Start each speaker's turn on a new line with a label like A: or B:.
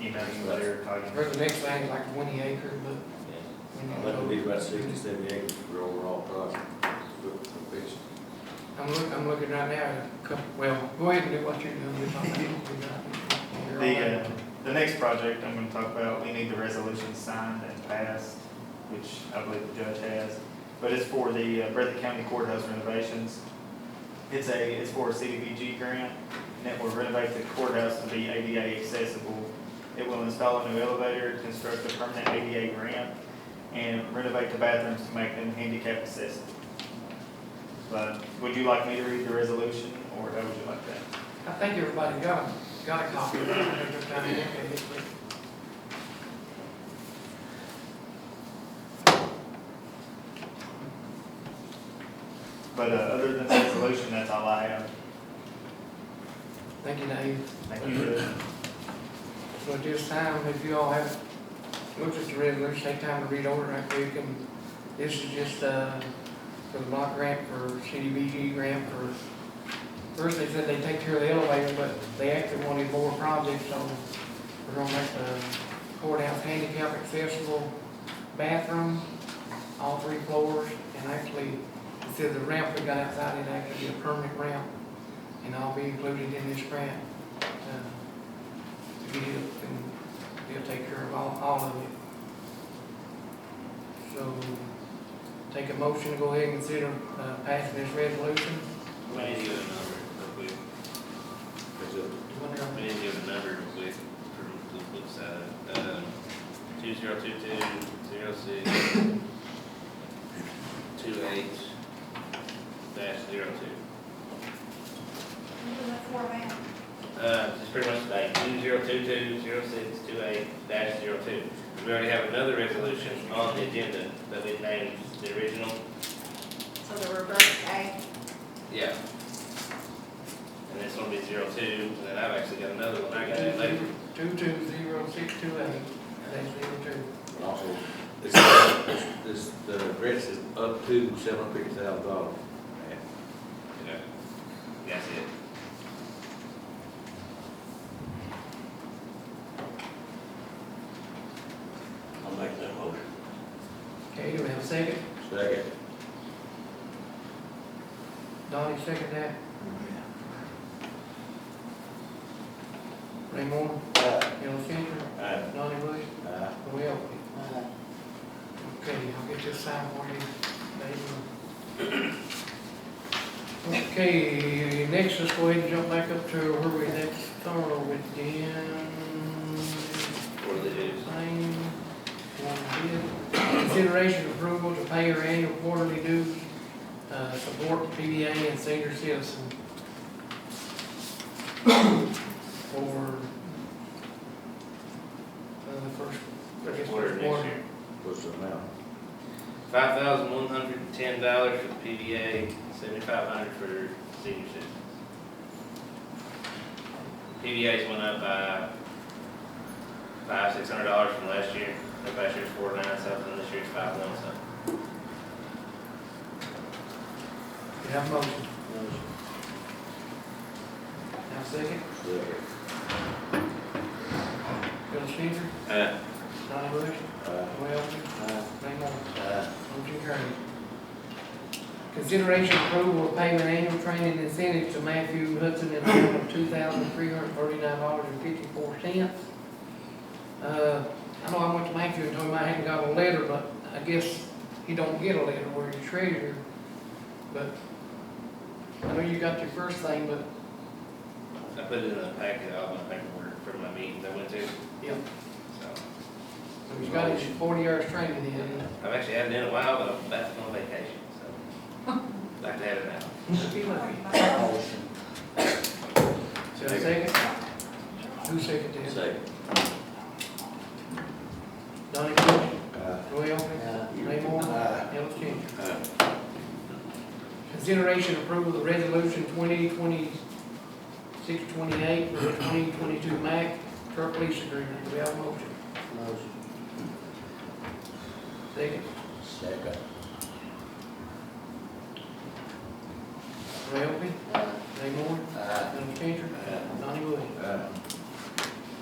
A: emailing you later, calling you.
B: Or the next thing is like twenty acre, but. when
C: I'd
B: you
C: like to
B: go-
C: be about sixty, seventy acres for overall project, but for this.
B: I'm look, I'm looking right now, at a couple, well, go ahead and do what you're doing. You're talking about what we got. You're all
A: The,
B: right.
A: uh, the next project I'm gonna talk about, we need the resolution signed and passed, which I believe the judge has. But it's for the uh, Breathitt County Courthouse renovations. It's a, it's for a CDBG grant, and it will renovate the courthouse to be ADA accessible. It will install a new elevator, construct a permanent ADA ramp, and renovate the bathrooms to make them handicap accessible. But would you like me to read the resolution, or how would you like that?
B: I think everybody got, got a copy. of it. Every time you look at it, but-
A: But uh, other than the resolution, that's all I have.
B: Thank you, Dave.
A: Thank you.
B: So at this time, if you all have looked at the resolution, take time to read over it right quick, and this is just, uh, for the block grant for CDBG grant for, first they said they take care of the elevator, but they actually wanted more projects, so we're gonna make the courthouse handicap accessible bathroom, all three floors, and actually, instead of the ramp we got outside, it actually be a permanent ramp, and I'll be included in this grant. Uh, to get it, and he'll take care of all, all of it. So, take a motion to go ahead and consider, uh, passing this resolution.
D: We need to get a number real quick.
C: That's it.
D: We need to get a number real quick for the flip side. Um, two zero two two, zero six, two eight, dash zero two. Uh, it's pretty much like two zero two two, zero six, two eight, dash zero two. We already have another resolution on the agenda that we named the original.
E: So the reverse A,
D: Yeah. And this one will be zero two, and then I've actually got another one. I got it later.
B: Two two zero six two eight, that's zero two.
C: And also, this, this, the grant is up to seven hundred fifty thousand dollars.
D: Yeah. That's it.
F: I'll make that motion.
B: Okay, do we have a second?
C: Second.
B: Donnie, second that? Ray Moore,
C: uh,
F: Aye.
B: Ellis Cantor,
F: Aye.
B: Donnie Bush,
C: Aye.
B: Roy Elphie. uh, Okay, I'll get this signed for you, Dave. Okay, next, let's go ahead and jump back up to where we next started with Dan.
D: What do they do?
B: Same, one bid. Consideration and approval to pay your annual quarterly dues, uh, support PBA and senior citizen. For, uh, the first, I guess,
D: Order
B: first
D: next
B: quarter.
D: year.
C: What's the amount?
D: Five thousand one hundred and ten dollars for PDA, seventy-five hundred for senior citizens. PDA's went up by five, six hundred dollars from last year. Like Last year's four nine something, this year's five one something.
B: You have a motion? Have a second?
C: Second.
B: Bill Changer,
D: Uh,
B: Donnie Bush,
C: Aye.
B: Roy Elphie,
C: Aye.
B: Ray Moore.
C: Aye.
B: Motion carried. Consideration approval of payment annual training incentive to Matthew Hudson in the amount of two thousand three hundred thirty-nine dollars and fifty-four cents. Uh, I know I went to Matthew and told him I hadn't got a letter, but I guess he don't get a letter where you treasurer. But I know you got your first thing, but,
D: I put it in a packet, all my paperwork for my meetings I went to,
B: yeah,
D: so.
B: he's got his forty hours training in.
D: I've actually had it in a while, but I'm about to go on vacation, so. Like to have it now.
B: Be lucky.
F: Motion.
B: So a second? Who seconded this?
C: Second.
B: Donnie Bush,
C: Aye.
B: Roy Elphie, Ray Moore,
C: uh,
F: Aye.
B: Ellis Cantor.
C: Aye.
B: Consideration approval of resolution twenty twenty six twenty-eight for the twenty twenty-two MAC truck lease agreement. Do we have a motion?
F: Motion.
B: Second,
F: Second.
B: Ray Elphie, Ray Moore,
F: Aye.
B: Ellis Cantor,
F: Aye.
C: Uh,
B: Donnie Bush.
C: Aye.